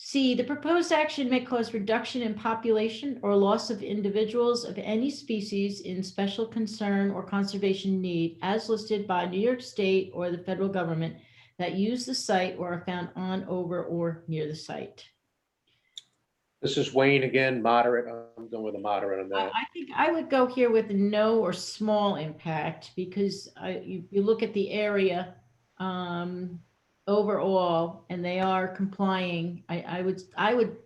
C, the proposed action may cause reduction in population or loss of individuals of any species in special concern or conservation need as listed by New York State or the federal government that use the site or are found on, over, or near the site. This is Wayne again, moderate. I'm going with a moderate on I that. I think I would go here with no or small impact because I, you, you look at the area um, overall and they are complying. I, I would, I would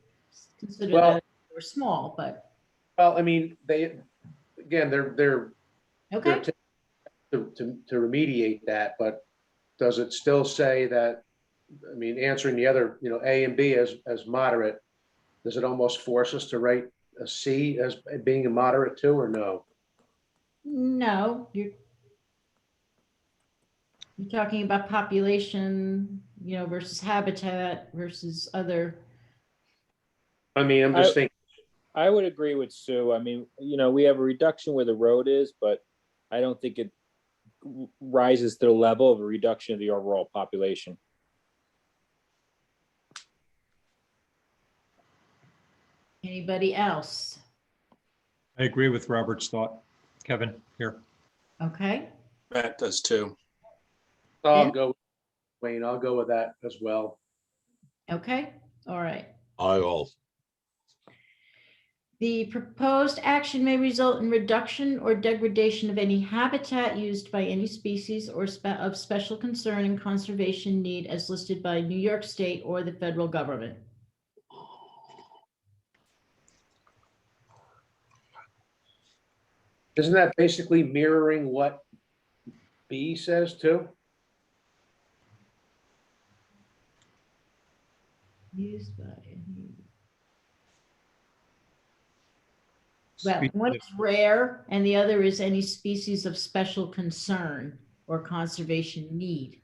consider Well- that or small, but, Well, I mean, they, again, they're, they're, they're okay. t- to, to to remediate that, but does it still say that, I mean, answering the other, you know, A and B as, as moderate, does it almost force us to write a C as being a moderate too, or no? No, you're you're talking about population, you know, versus habitat versus other. I mean, I'm just I- thinking, I would agree with Sue. I mean, you know, we have a reduction where the road is, but I don't think it w- rises to the level of a reduction of the overall population. Anybody else? I agree with Robert's thought. Kevin, here. Okay, Matt does too. I'll go, Wayne, I'll go with that as well. okay, all right. I all, The proposed action may result in reduction or degradation of any habitat used by any species or spe- of special concern and conservation need as listed by New York State or the federal government. Isn't that basically mirroring what B says too? Used by. any- Well, one is rare and the other is any species of special concern or conservation need.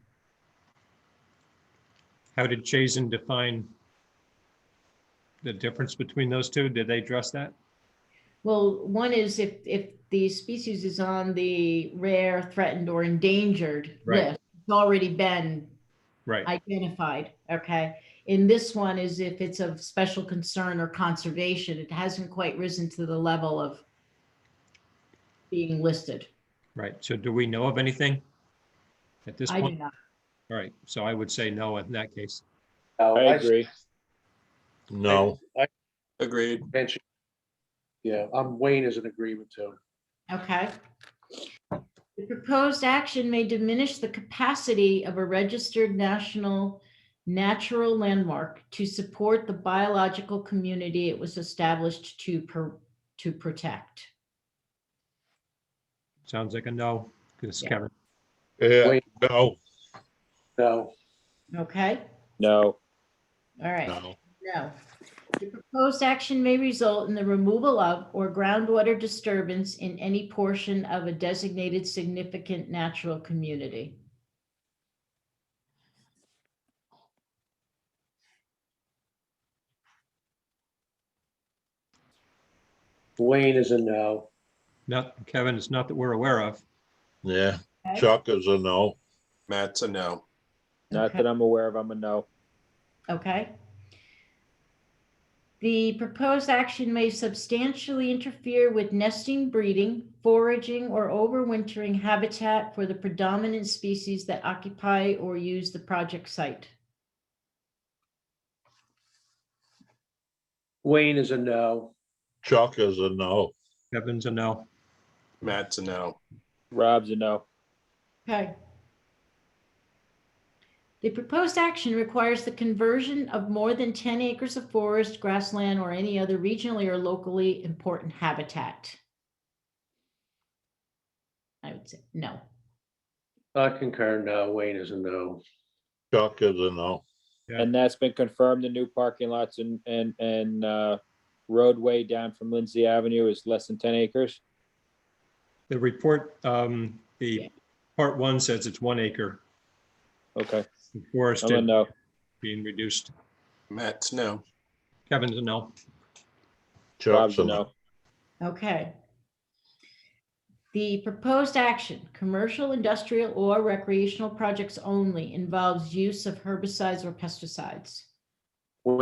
How did Chazen define the difference between those two? Did they address that? Well, one is if, if the species is on the rare, threatened, or endangered Right. list, it's already been Right, identified, okay? In this one is if it's of special concern or conservation, it hasn't quite risen to the level of being listed. right. So do we know of anything at this I do point? not, All right, so I would say no in that case. No, I agree. no, Agreed. mention- Yeah, um, Wayne is an agreement too. okay? The proposed action may diminish the capacity of a registered national natural landmark to support the biological community it was established to, pro- to protect. Sounds like a no, because Yeah. Kevin, yeah, Wait. no, No, Okay, No, all right. no, No. The proposed action may result in the removal of or groundwater disturbance in any portion of a designated significant natural community. Wayne is a no. not, Kevin, it's not that we're aware of. yeah. Okay. Chuck is a no. Matt's a no. not that I'm aware of. I'm a no. Okay. The proposed action may substantially interfere with nesting, breeding, foraging, or overwintering habitat for the predominant species that occupy or use the project site. Wayne is a no. Chuck is a no. Kevin's a no. Matt's a no. Rob's a no. Okay. The proposed action requires the conversion of more than 10 acres of forest, grassland, or any other regionally or locally important habitat. I would say no. I concur, no, Wayne is a no. Chuck is a no. And that's been confirmed. The new parking lots and, and, and, uh, roadway down from Lindsay Avenue is less than ten acres. The report, um, Yeah. the part one says it's one acre, Okay, I'm a forested, no. being reduced. Matt's no. Kevin's a no. Chuck's Rob's a a no. no. Okay. The proposed action, commercial, industrial, or recreational projects only involves use of herbicides or pesticides.